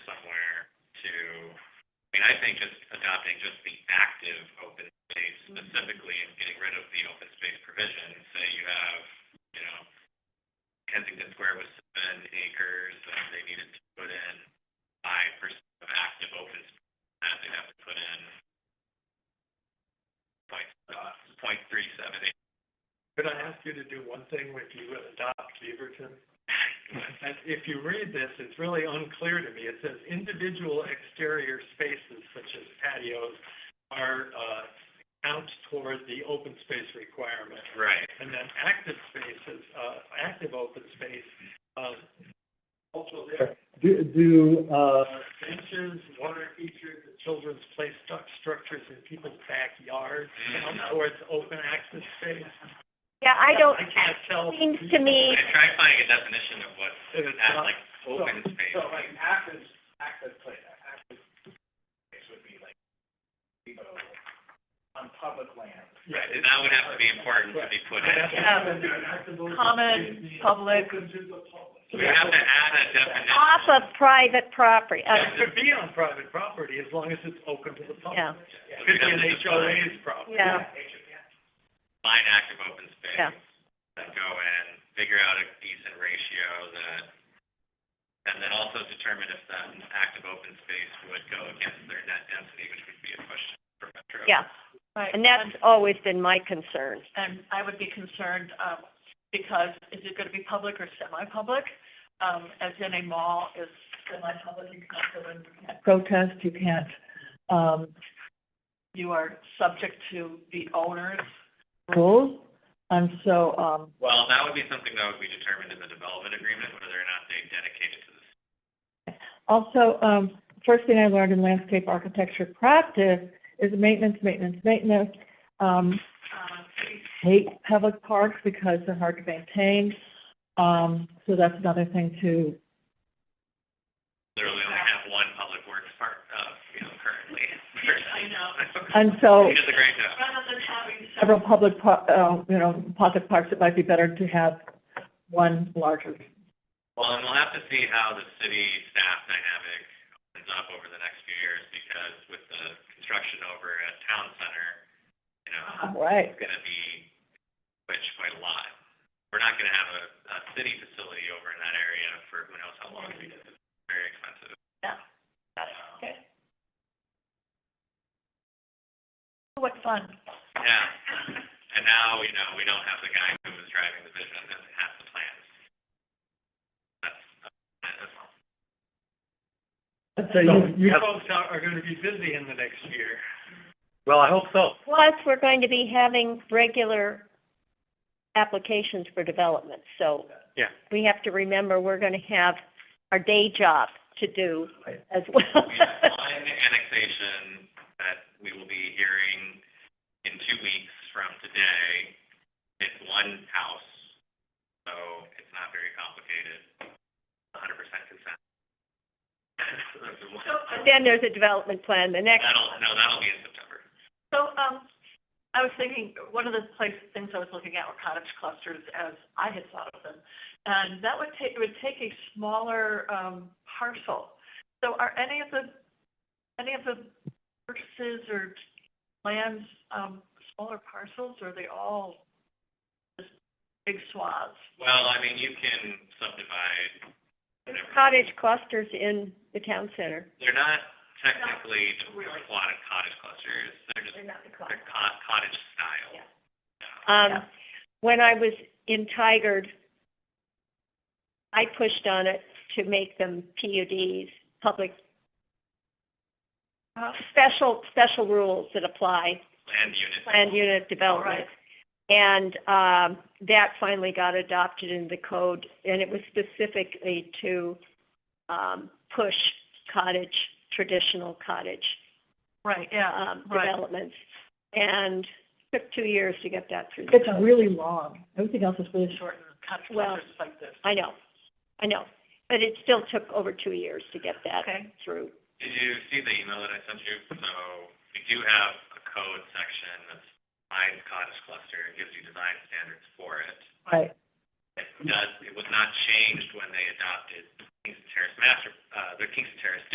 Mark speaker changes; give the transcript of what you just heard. Speaker 1: I think just adopting just the active open space specifically and getting rid of the open space provision, say you have, you know, Kensington Square was seven acres, and they needed to put in five percent of active open space, and they'd have to put in point, uh, point three seven acres.
Speaker 2: Could I ask you to do one thing when you adopt Beaverton? And if you read this, it's really unclear to me. It says individual exterior spaces such as patios are, uh, count toward the open space requirement.
Speaker 1: Right.
Speaker 2: And then active spaces, uh, active open space, uh, also there,
Speaker 3: Do, do, uh,
Speaker 2: uh, benches, water features, children's play stu- structures in people's backyards, count towards open access space.
Speaker 4: Yeah, I don't,
Speaker 2: I can't tell.
Speaker 4: seems to me,
Speaker 1: I tried finding a definition of what,
Speaker 2: If it's
Speaker 1: that,
Speaker 2: not-
Speaker 1: like, open space. means.
Speaker 2: active, active play, active space would be like, you know, on public land.
Speaker 1: Right, and that would have to be important to be put in.
Speaker 5: Common, public.
Speaker 1: So We have to add a definition.
Speaker 4: off of private property, uh,
Speaker 2: It could be on private property as long as it's open to the public.
Speaker 4: yeah,
Speaker 1: So we'd
Speaker 2: It could be
Speaker 1: have
Speaker 2: an
Speaker 1: to define-
Speaker 2: HOA's property.
Speaker 4: yeah.
Speaker 1: Line active open space.
Speaker 4: Yeah.
Speaker 1: And go in, figure out a decent ratio that, and then also determine if that active open space would go against their net density, which would be a question for Metro.
Speaker 4: yeah.
Speaker 5: Right.
Speaker 4: And that's always been my concern.
Speaker 5: And I would be concerned, um, because is it gonna be public or semi-public? Um, as in a mall is semi-public, you can't go in, you can't protest, you can't, um, you are subject to the owner's rules. And so, um,
Speaker 1: Well, that would be something that would be determined in the development agreement, whether or not they dedicate it to the
Speaker 6: Also, um, first thing I learned in landscape architecture practice is maintenance, maintenance, maintenance. Um, hate public parks because they're hard to maintain. Um, so that's another thing to,
Speaker 1: literally only have one public works part, uh, you know, currently.
Speaker 5: I know.
Speaker 6: and so
Speaker 1: He does a great job.
Speaker 5: rather than having
Speaker 6: several public par- uh, you know, pocket parks, it might be better to have one larger.
Speaker 1: Well, and we'll have to see how the city staff dynamic opens up over the next few years, because with the construction over at Town Center, you know,
Speaker 5: Uh-huh.
Speaker 6: Right.
Speaker 1: it's gonna be switched quite a lot. We're not gonna have a, a city facility over in that area for who knows how long, because it's very expensive.
Speaker 5: Yeah. Got it.
Speaker 1: Um,
Speaker 5: Okay. What fun.
Speaker 1: Yeah, and now, you know, we don't have the guy who was driving the vision and has the plans. That's, that's all.
Speaker 6: So you,
Speaker 2: You folks are, are gonna be busy in the next year. Well, I hope so.
Speaker 4: Plus, we're going to be having regular applications for development, so.
Speaker 2: Yeah.
Speaker 4: We have to remember, we're gonna have our day job to do as well.
Speaker 1: We have one annexation that we will be hearing in two weeks from today. It's one house, so it's not very complicated. hundred percent consent. That's the one.
Speaker 4: And Then there's a development plan, the next,
Speaker 1: That'll, no, that'll be in September.
Speaker 5: So, um, I was thinking, one of the place, things I was looking at were cottage clusters as I had thought of them. And that would take, it would take a smaller, um, parcel. So are any of the, any of the purchases or lands, um, smaller parcels, or are they all just big swaths?
Speaker 1: Well, I mean, you can subdivide whatever.
Speaker 4: cottage clusters in the town center.
Speaker 1: They're not technically
Speaker 5: really.
Speaker 1: aquatic cottage clusters, they're just,
Speaker 4: not the
Speaker 1: they're co- cottage style.
Speaker 4: Yeah.
Speaker 1: Yeah.
Speaker 4: Um, when I was in Tigard, I pushed on it to make them PUDs, public,
Speaker 5: Uh,
Speaker 4: special, special rules that apply
Speaker 1: Land unit.
Speaker 4: planned unit development.
Speaker 5: Right.
Speaker 4: And, um, that finally got adopted in the code, and it was specifically to, um, push cottage, traditional cottage,
Speaker 5: Right, yeah,
Speaker 4: um,
Speaker 5: Right.
Speaker 4: developments. And took two years to get that through.
Speaker 6: it's really long. Everything else is really short.
Speaker 5: short and cottage
Speaker 4: Well-
Speaker 5: clusters like this.
Speaker 4: I know, I know, but it still took over two years to get that
Speaker 5: Okay,
Speaker 4: through.
Speaker 1: Did you see the email that I sent you? So we do have a code section that's defines cottage cluster and gives you design standards for it.
Speaker 6: Right.
Speaker 1: It does, it was not changed when they adopted Kingston Terrace master, uh, the Kingston Terrace